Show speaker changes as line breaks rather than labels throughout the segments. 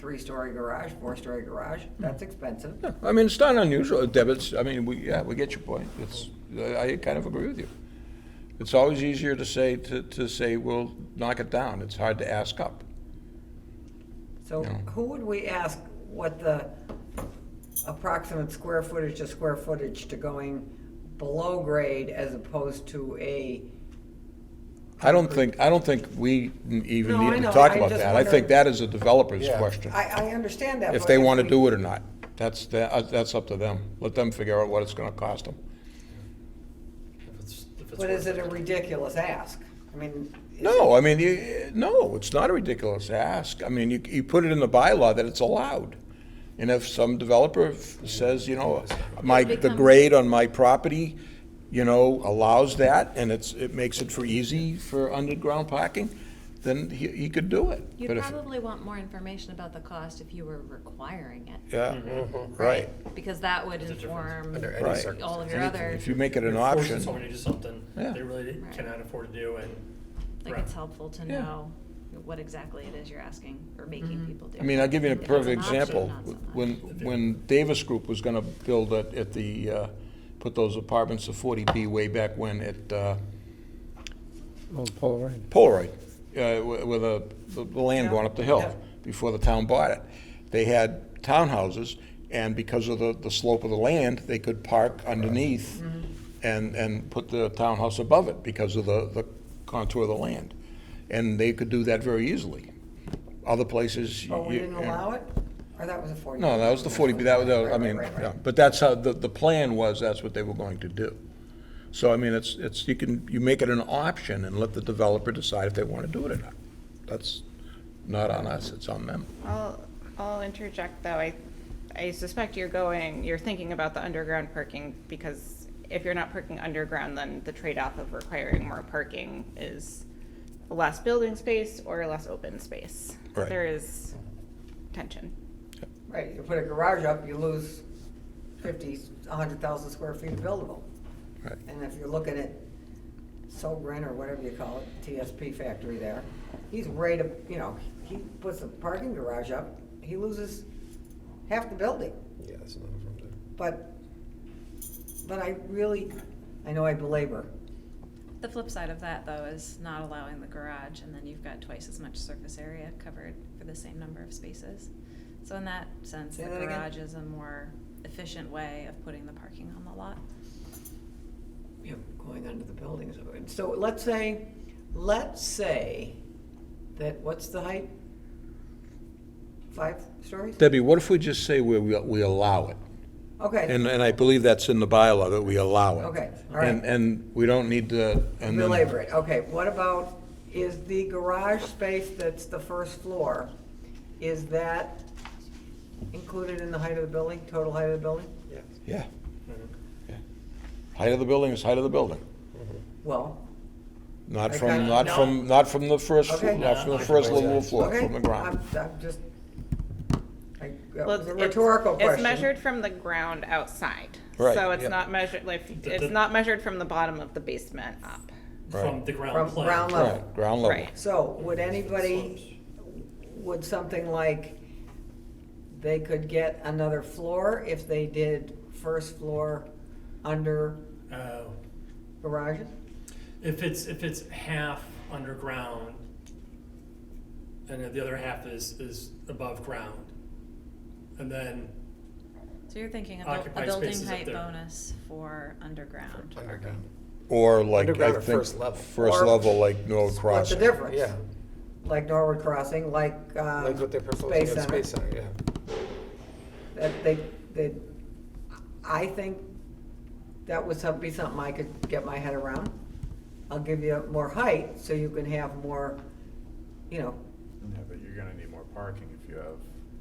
three-story garage, four-story garage, that's expensive.
Yeah, I mean, it's not unusual, Debits, I mean, we, yeah, we get your point. It's, I I kind of agree with you. It's always easier to say, to, to say, we'll knock it down. It's hard to ask up.
So who would we ask what the approximate square footage to square footage to going below grade as opposed to a,
I don't think, I don't think we even
No, I
need to
know.
talk
I
about
just
that. I think
wondered-
that is a developer's question,
I, I understand that.
if
but
they want to
we-
do it or not. That's, the- uh, that's up to them. Let them figure out what it's going to cost them.
If it's- if it's
But is
worth
it a ridiculous ask? I mean. is
No, I mean, you, no, it's not a ridiculous ask. I mean, you, you put it in the bylaw that it's allowed. And if some developer f- says, you know, my, the grade on my property, you know, allows that, and it's, it makes it for easy for underground parking, then he, he could do it. But
You'd
if-
probably want more information about the cost if you were requiring it.
Yeah,
Mm-hmm.
right.
Because that would inform
Under any
Right.
circumstances.
all of your other,
If you make it an
it. Forces
option,
Someone to do something
Yeah.
they really
Right.
cannot afford to do and.
like,
Right.
it's helpful to
Yeah.
know what exactly it is you're asking or making people do.
I mean, I'll give you a
If it's an
perfect
option,
example.
not so much.
When, when Davis Group was gonna build at, at the, uh, put those apartments of forty B way back when at, uh,
Old Polaroid.
Polaroid, uh, wi- with a, the the land going up the hill
Yeah.
before the town bought it. They had townhouses, and because of the, the slope of the land, they could park underneath
Mm-hmm.
and, and put the townhouse above it because of the, the contour of the land. And they could do that very easily. Other places.
Oh, we
you-
didn't
you-
allow it? Or that was a forty?
No, that was the 40B, that was, that was- I
Right,
mean,
right, right,
yeah,
right.
but that's how, the, the plan was, that's what they were going to do. So, I mean, it's, it's, you can, you make it an option and let the developer decide if they want to do it or not. That's not on us, it's on them.
I'll, I'll interject though. I, I suspect you're going, you're thinking about the underground parking because if you're not parking underground, then the trade-off of requiring more parking is less building space or less open space.
Right.
There is tension.
Right, you put a garage up, you lose fifty, a hundred thousand square feet of buildable.
Right.
And if you're looking at Sogren or whatever you call it, TSP factory there, he's right, up- you know, he puts a parking garage up, he loses half the building.
Yeah, that's another from there.
But, but I really, I know I belabor,
The flip side of that, though, is not allowing the garage, and then you've got twice as much surface area covered for the same number of spaces. So in that sense,
Say
the
that again.
garage is a more efficient way of putting the parking on the lot.
you know, going under the buildings. So let's say, let's say that, what's the height? Five stories?
Debbie, what if we just say we, we we allow it?
Okay.
And, and I believe that's in the bylaw, that we allow it.
Okay, all right.
And, and we don't need to, and then.
Belabor it, okay, what about, is the garage space that's the first floor, is that included in the height of the building, total height of the building?
Yeah.
Yeah. Yeah. Height of the building is height of the building.
Well,
Not
I
from,
kinda-
not
no.
from, not from the first, flo-
Okay.
not from the first level floor,
okay,
from the ground.
I'm, I'm just, I, that
Well,
was a
it's-
rhetorical question.
It's measured from the ground outside.
Right,
So it's
yeah.
not measured, like,
The- the-
it's not measured from the bottom of the basement up.
Right.
From the ground
From
plane.
ground level.
Right, ground level.
Right.
So, would anybody, would something like, they could get another floor if they did first floor under
Uh,
garages?
If it's, if it's half underground and then the other half is, is above ground. And then,
So you're thinking about a
Occupied
building
spaces up
height
there.
bonus for underground.
Underground.
Or like, I
Underground or
think,
first level?
first
Or
level, like Norwood
What's the
Crossing.
difference?
Yeah,
like Norwood Crossing, like, um,
like what they're proposing
Space
at
Center.
Space Center, yeah.
That they, they, I think that would some- be something I could get my head around. I'll give you more height, so you can have more, you know,
Yeah, but you're gonna need more parking if you have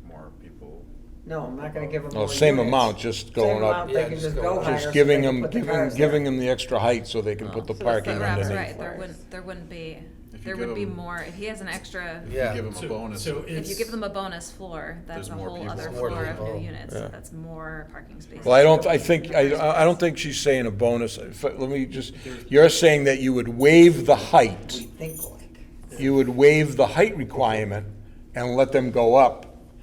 more people.
no, I'm not gonna give them more
Well, Oh, same
units.
amount, just going
Same
up.
amount,
Yeah,
they can
just
just
go
go
up.
higher.
Just
so
Just
they
giving
can
them,
put the Oh.
giving,
cars there.
giving them the extra height so they can put the
So that's
parking
the
Perhaps,
ground
underneath.
right, there
floors.
wouldn't, there wouldn't be,
If you
there
give
would be
them-
more, if he has an extra,
You
Yeah,
Give them a
So-
bonus.
so
If
if you
it's-
give them a bonus floor, that's
There's
a
more
whole
people.
other
More
floor of
people.
new units,
Yeah.
that's more parking spaces.
Well, I don't, I think, I, I don't think she's saying a bonus. If- Let me just, you're saying that you would waive the height.
Think like,
You would waive the height requirement and let them go up